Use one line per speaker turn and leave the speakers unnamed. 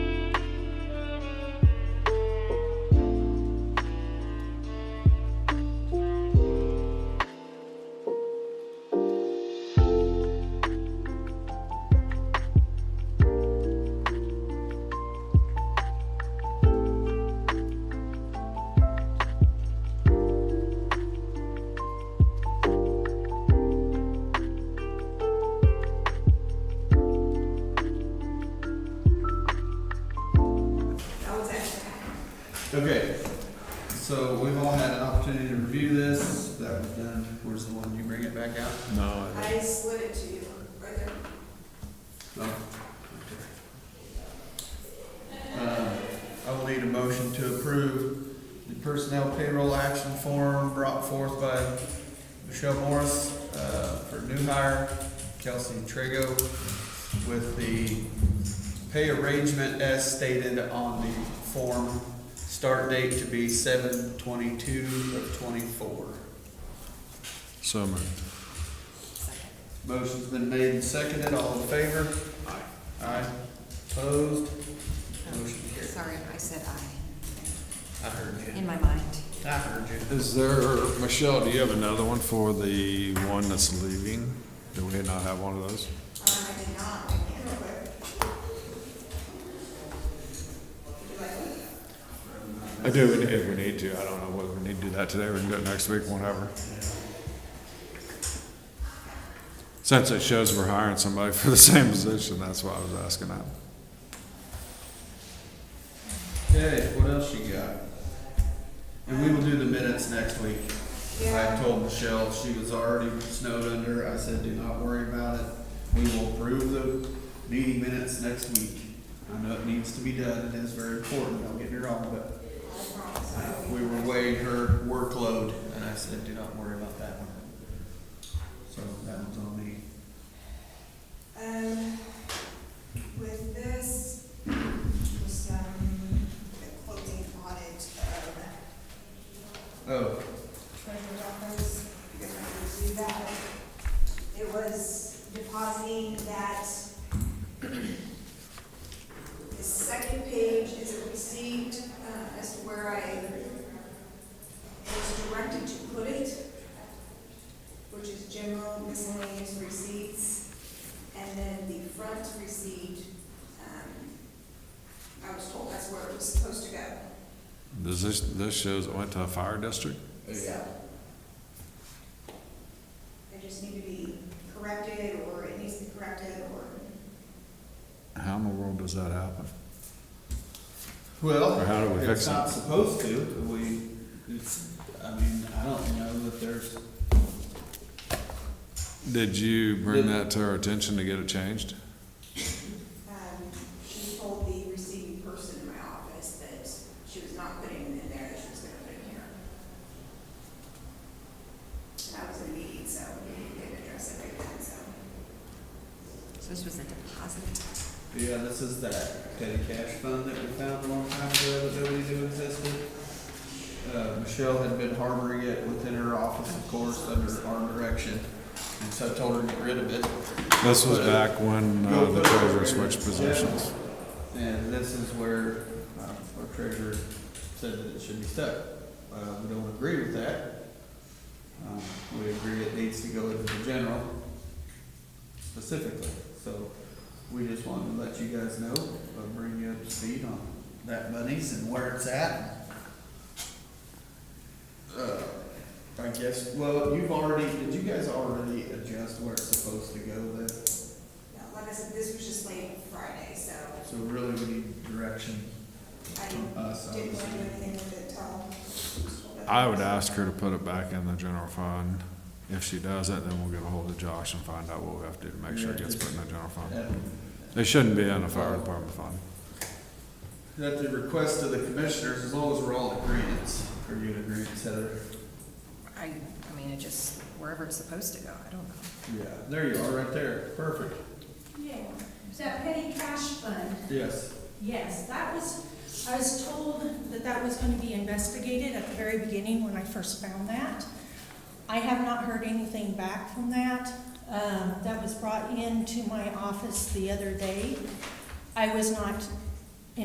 Okay, so we've all had an opportunity to review this, that was done, where's the one, you bring it back out?
No, I-
I slid it to you, right there.
No. Uh, I will need a motion to approve the personnel payroll action form brought forth by Michelle Morris, uh, for new hire, Kelsey Trego, with the pay arrangement as stated on the form, start date to be seven twenty-two of twenty-four.
so moved.
Motion's been made and seconded, all in favor? Aye. Aye, opposed? Motion carried.
Sorry, I said I,
I heard you.
in my mind.
I heard you.
Is there, Michelle, do you have another one for the one that's leaving? Do we not have one of those?
Um, I did not, I can't real quick. Would you like one?
I do, if we need to. I don't know whether we need to do that today. We can do it next week, whatever. Since it shows we're hiring somebody for the same position, that's why I was asking that.
Okay, what else you got? And we will do the minutes next week. I
Yeah.
told Michelle, she was already snowed under, I said, do not worry about it. We will approve the meeting minutes next week. I know it needs to be done, it is very important, don't get me wrong, but
I promise.
uh, we were weighing her workload, and I said, do not worry about that one. So that one's on me.
Um, with this, was, um, the closing audit of
Oh,
treasurer's office, you guys might review that. It was depositing that the second page is a receipt, uh, as to where I was directed to put it, which is general miscellaneous receipts. And then the front receipt, um, I was told that's where it was supposed to go.
Does this, this shows it went to a fire district?
So, they just need to be corrected, or it needs to be corrected, or,
How in the world does that happen?
Well,
Or how do we fix
it's
it?
not supposed to, but we, it's, I mean, I don't know that there's,
Did you bring that to our attention to get it changed?
um, she told the receiving person in my office that she was not putting it in there, that she was gonna put it here. And I was in a meeting, so we didn't address it right then, so.
So this was a deposit.
yeah, this is that petty cash fund that we found a long time ago that nobody knew existed. Uh, Michelle had been harboring it within her office, of course, under our direction, and so I told her to get rid of it.
This was back when uh, the treasurer switched positions.
And this is where uh, our treasurer said that it should be stuck. Uh, We don't agree with that. Um, We agree it needs to go into the general specifically. So we just wanted to let you guys know, uh, bring you up to speed on that monies and where it's at. Uh, I guess, well, you've already, did you guys already adjust where it's supposed to go then?
Now, like I said, this was just late Friday, so
So really, we need direction
I
from us,
didn't want to do
obviously.
anything with it till.
I would ask her to put it back in the general fund. If she doesn't, then we'll get a hold of Josh and find out what we have to do to make sure it gets put in the general fund. It shouldn't be in the fire department fund.
At the request of the commissioners, as long as we're all in agreeance, are you in agreeance, Heather?
I, I mean, it just, wherever it's supposed to go, I don't know.
Yeah. There you are, right there, perfect,
Yeah, so that petty cash fund,
yes.
yes, that was, I was told that that was going to be investigated at the very beginning when I first found that. I have not heard anything back from that. Um, That was brought into my office the other day. I was not